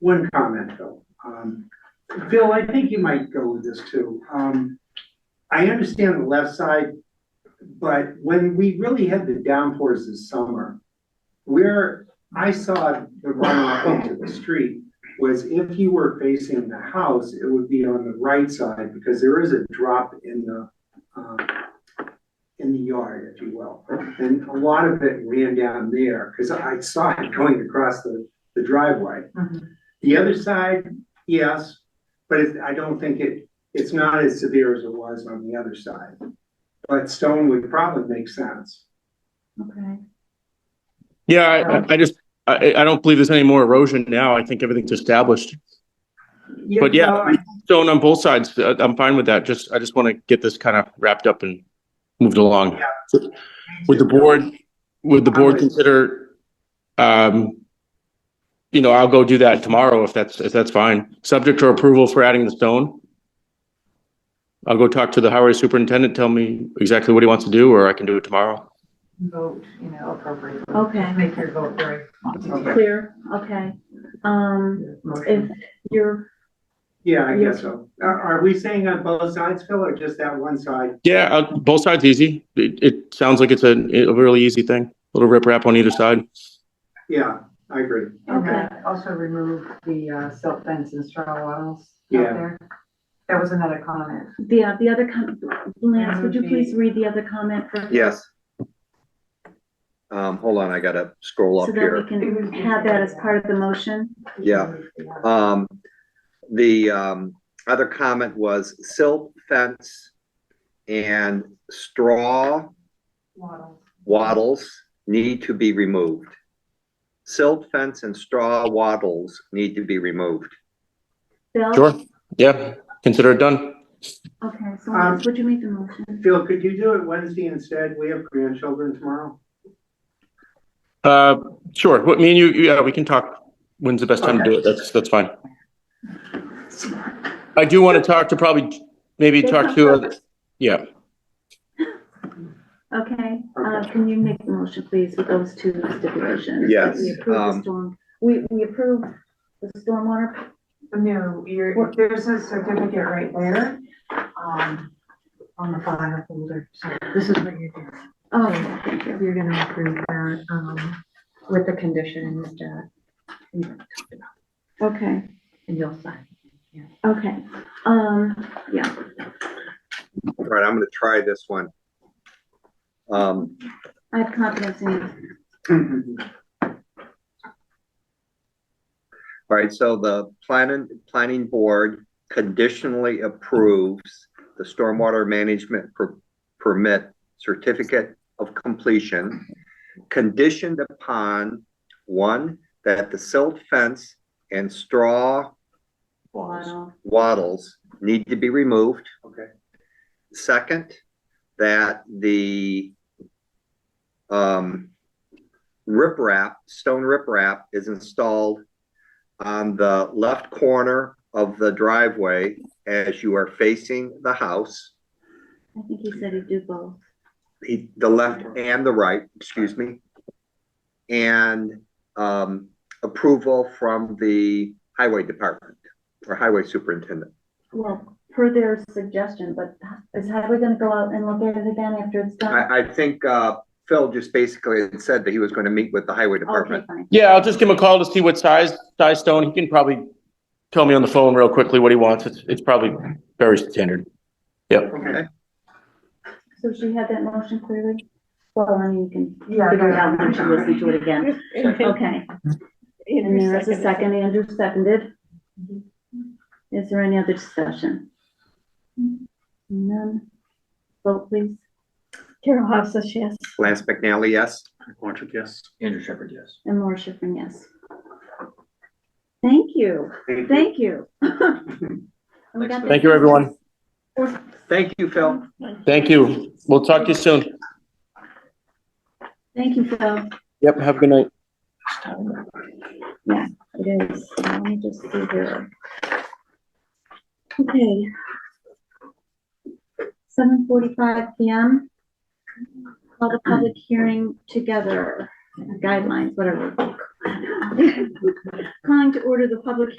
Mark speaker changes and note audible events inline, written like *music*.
Speaker 1: one comment though. Um, Phil, I think you might go with this too. Um, I understand the left side, but when we really had the downpours this summer, where I saw the runoff into the street was if you were facing the house, it would be on the right side because there is a drop in the, um, in the yard, if you will. And a lot of it ran down there because I saw it going across the, the driveway. The other side, yes, but it, I don't think it, it's not as severe as it was on the other side. But stone would probably make sense.
Speaker 2: Okay.
Speaker 3: Yeah, I- I, I just, I, I don't believe there's any more erosion now. I think everything's established. But yeah,
Speaker 1: no, I-
Speaker 3: Stone on both sides, uh, I'm fine with that. Just, I just want to get this kind of wrapped up and moved along. Would the board, would the board consider, um, you know, I'll go do that tomorrow if that's, if that's fine. Subject to approval for adding the stone? I'll go talk to the highway superintendent, tell me exactly what he wants to do, or I can do it tomorrow.
Speaker 4: vote, you know, appropriately.
Speaker 2: Okay.
Speaker 4: Make your vote very.
Speaker 1: Okay.
Speaker 2: Clear, okay. Um, if
Speaker 4: Motion.
Speaker 2: you're,
Speaker 1: Yeah, I guess so. Are, are we saying on both sides, Phil, or just that one side?
Speaker 3: Yeah, uh, both sides easy. It, it sounds like it's a, a really easy thing. Little rip rap on either side.
Speaker 1: Yeah, I agree.
Speaker 4: And
Speaker 2: okay,
Speaker 4: then Also remove the uh, silt fence and straw wattles out
Speaker 1: Yeah.
Speaker 4: there. That was another comment.
Speaker 2: the, the other, com- Lance, would you please read the other comment for?
Speaker 5: Yes. Um, hold on, I gotta scroll
Speaker 2: So
Speaker 5: up
Speaker 2: that we
Speaker 5: here.
Speaker 2: can have that as part of the motion?
Speaker 5: Yeah. Um, the, um, other comment was silt fence and straw
Speaker 4: Wattles.
Speaker 5: wattles need to be removed. Silt fence and straw wattles need to be removed.
Speaker 2: Bill?
Speaker 3: Sure. Yeah, consider it done.
Speaker 2: Okay, so Lance, would you make the motion?
Speaker 1: Phil, could you do it Wednesday instead? We have grandchildren tomorrow.
Speaker 3: Uh, sure. What, me and you, yeah, we can talk. When's the best time to do it? That's, that's fine. I do want to talk to probably, maybe talk to, uh, yeah,
Speaker 2: Okay, uh, can you make the motion, please, with those two stipulations?
Speaker 5: Yes,
Speaker 2: We approve the
Speaker 5: um,
Speaker 2: storm, we, we approve the stormwater,
Speaker 4: No, you're, there's a certificate right there, um, on the file folder, so this is what you're doing.
Speaker 2: oh, thank you.
Speaker 4: You're gonna approve that, um, with the conditions that we talked about,
Speaker 2: Okay.
Speaker 4: and you'll sign.
Speaker 2: Okay, um, yeah,
Speaker 5: All right, I'm gonna try this one. Um,
Speaker 2: I have confidence in you.
Speaker 1: Mm-hmm. *laughs*
Speaker 5: all right, so the planning, planning board conditionally approves the stormwater management per- permit certificate of completion conditioned upon, one, that the silt fence and straw
Speaker 2: Waddle.
Speaker 5: wattles need to be removed.
Speaker 1: Okay.
Speaker 5: Second, that the um, riprap, stone riprap is installed on the left corner of the driveway as you are facing the house.
Speaker 2: I think he said he'd do both.
Speaker 5: He- the left and the right, excuse me. And um, approval from the highway department or highway superintendent.
Speaker 2: Well, per their suggestion, but is Highway gonna go out and look at it again after it's done?
Speaker 5: I, I think, uh, Phil just basically had said that he was gonna meet with the highway
Speaker 2: Okay,
Speaker 5: department.
Speaker 2: fine.
Speaker 3: yeah, I'll just give him a call to see what size, size stone. He can probably tell me on the phone real quickly what he wants. It's, it's probably very standard.
Speaker 1: Okay,
Speaker 2: So she had that motion clearly? Well, I mean, you can
Speaker 4: Yeah.
Speaker 2: figure it out once you listen to it again. Okay, and there is a second, Andrew seconded. Is there any other discussion? None? Vote please.
Speaker 6: Carol Hofstas, yes.
Speaker 5: Lance McNally, yes?
Speaker 7: Andrew Shepherd, yes.
Speaker 2: And Laura Schiffern, yes. Thank you.
Speaker 1: Thank you.
Speaker 2: Thank
Speaker 5: *laughs*
Speaker 2: you. And we got
Speaker 3: Thank you, everyone.
Speaker 2: that-
Speaker 5: Thank you, Phil.
Speaker 3: Thank you. We'll talk to you soon.
Speaker 2: Thank you, Phil.
Speaker 3: Yep, have a good night.
Speaker 2: Yeah, it is. Let me just see here. Okay. Seven forty-five PM. Call the public hearing together, guidelines, whatever. *laughs* Calling to order the public